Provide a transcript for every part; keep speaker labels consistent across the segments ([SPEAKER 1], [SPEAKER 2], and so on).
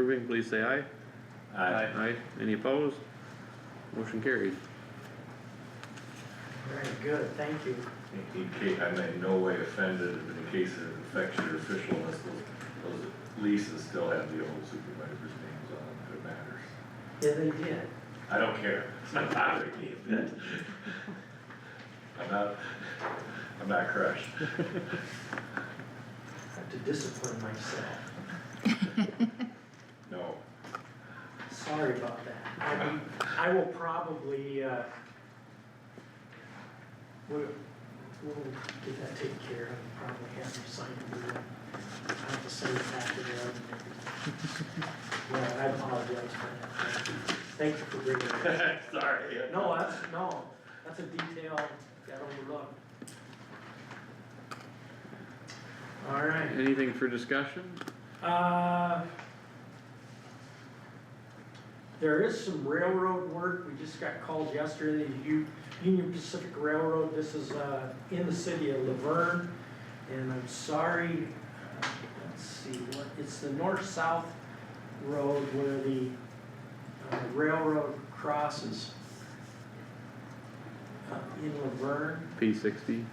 [SPEAKER 1] approving, please say aye.
[SPEAKER 2] Aye.
[SPEAKER 1] Aye, any opposed? Motion carried.
[SPEAKER 3] Very good, thank you.
[SPEAKER 2] In in case, I'm in no way offended, but in case it affects your officialness, those, those leases still have the old supervisor's names on them, if it matters.
[SPEAKER 3] Yeah, they did.
[SPEAKER 2] I don't care, it's not bothering me a bit. I'm not, I'm not crushed.
[SPEAKER 3] I have to discipline myself.
[SPEAKER 2] No,
[SPEAKER 3] Sorry about that. I, I will probably, uh, we'll, we'll get that taken care of, and probably have you sign it. We will- I have to send it back to the other. Yeah, I apologize for that. Thank you for bringing it up.
[SPEAKER 2] sorry.
[SPEAKER 3] No, that's, no, that's a detail that overlooked. All right.
[SPEAKER 1] Anything for discussion?
[SPEAKER 3] Uh, There is some railroad work, we just got called yesterday, the U- Union Pacific Railroad, this is, uh, in the city of Laverne. And I'm sorry, uh, let's see, what, it's the north-south road where the uh, railroad crosses. uh, In Laverne,
[SPEAKER 1] P sixty?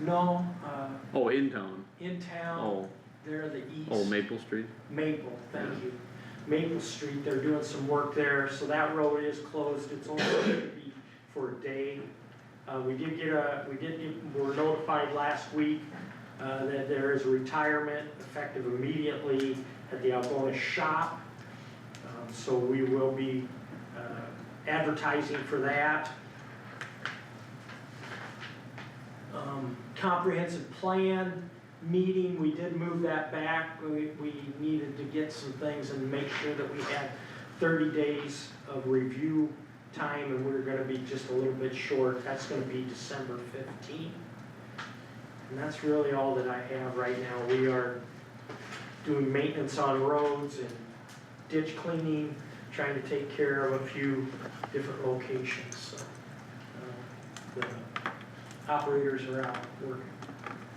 [SPEAKER 3] no, uh,
[SPEAKER 1] Oh, in town.
[SPEAKER 3] in town,
[SPEAKER 1] Oh,
[SPEAKER 3] there the east.
[SPEAKER 1] oh, Maple Street.
[SPEAKER 3] Maple, thank you. Maple Street, they're doing some work there, so that road is closed, it's only gonna be for a day. Uh, we did get a, we did get, were notified last week, uh, that there is retirement effective immediately at the Algona shop. Um, so we will be, uh, advertising for that. Um, comprehensive plan, meeting, we did move that back. We, we needed to get some things and make sure that we had thirty days of review time, and we're gonna be just a little bit short. That's gonna be December fifteenth. And that's really all that I have right now. We are doing maintenance on roads and ditch cleaning, trying to take care of a few different locations, so. uh, The operators are out working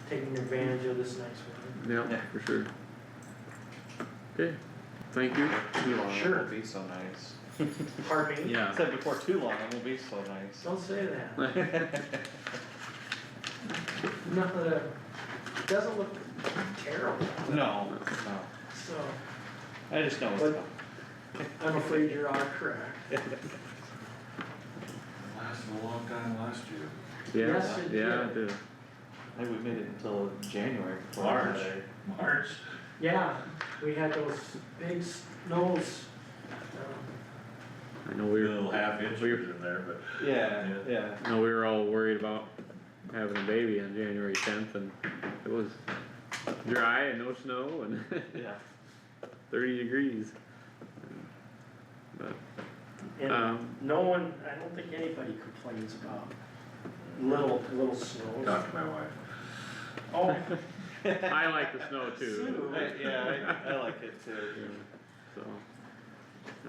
[SPEAKER 3] taking advantage of this next one.
[SPEAKER 1] Yeah,
[SPEAKER 4] Yeah.
[SPEAKER 1] for sure. Okay, thank you.
[SPEAKER 4] Too long, it
[SPEAKER 3] Sure.
[SPEAKER 4] won't be so nice.
[SPEAKER 3] Pardon me?
[SPEAKER 4] I
[SPEAKER 1] Yeah.
[SPEAKER 4] said before too long, it won't be so nice.
[SPEAKER 3] Don't say that. Not that, uh, it doesn't look terrible,
[SPEAKER 4] No, no,
[SPEAKER 3] so
[SPEAKER 4] I just know what's
[SPEAKER 3] But-
[SPEAKER 4] coming.
[SPEAKER 3] I'm afraid you're all correct.
[SPEAKER 2] Lasted a long time last year.
[SPEAKER 1] Yeah,
[SPEAKER 3] Yes, it
[SPEAKER 1] yeah, it did.
[SPEAKER 4] I think we made it until January. before we
[SPEAKER 2] March.
[SPEAKER 4] had
[SPEAKER 2] March.
[SPEAKER 3] Yeah, we had those big snows. um,
[SPEAKER 1] I know we
[SPEAKER 2] Little
[SPEAKER 1] were,
[SPEAKER 2] half inches in there, but.
[SPEAKER 4] our- Yeah, yeah.
[SPEAKER 1] I know we were all worried about having a baby on January tenth and it was dry and no snow and
[SPEAKER 4] Yeah.
[SPEAKER 1] thirty degrees. But,
[SPEAKER 3] And
[SPEAKER 1] um,
[SPEAKER 3] no one, I don't think anybody complains about little, little snows.
[SPEAKER 2] Talk to my wife.
[SPEAKER 3] Oh,
[SPEAKER 1] I like the snow too,
[SPEAKER 3] Sue,
[SPEAKER 4] I- Yeah, I, I like it too.
[SPEAKER 1] so.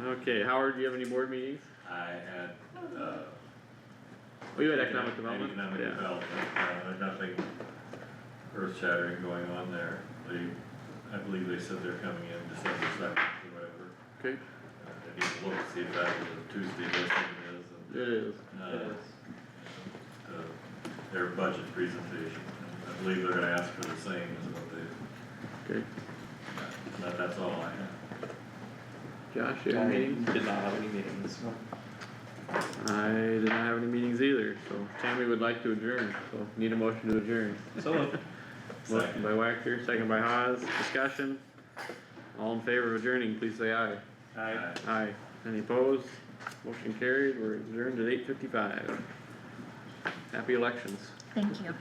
[SPEAKER 1] Okay, Howard, do you have any board meetings?
[SPEAKER 2] I had, uh,
[SPEAKER 1] Oh, you had economic development?
[SPEAKER 2] Economic
[SPEAKER 1] Yeah.
[SPEAKER 2] development, uh, there's nothing earth shattering going on there. They, I believe they said they're coming in December second or whatever.
[SPEAKER 1] Okay,
[SPEAKER 2] Uh, I need to look, to see if that was a Tuesday listing
[SPEAKER 1] it
[SPEAKER 2] is
[SPEAKER 1] is.
[SPEAKER 2] and,
[SPEAKER 4] It
[SPEAKER 2] uh,
[SPEAKER 4] is.
[SPEAKER 2] the, their budget presentation. I believe they're gonna ask for the same as what they,
[SPEAKER 1] Okay,
[SPEAKER 2] that, that's all I have.
[SPEAKER 1] Josh, you have any meetings?
[SPEAKER 4] I did not have any meetings.
[SPEAKER 1] I did not have any meetings either, so Tammy would like to adjourn, so need a motion to adjourn.
[SPEAKER 4] So,
[SPEAKER 1] Motion by Wactor, second by Haas, discussion. All in favor of adjourning, please say aye.
[SPEAKER 4] I.
[SPEAKER 2] Aye.
[SPEAKER 1] Aye. Any opposed? Motion carried, we're adjourned at eight fifty-five. Happy elections.
[SPEAKER 5] Thank you.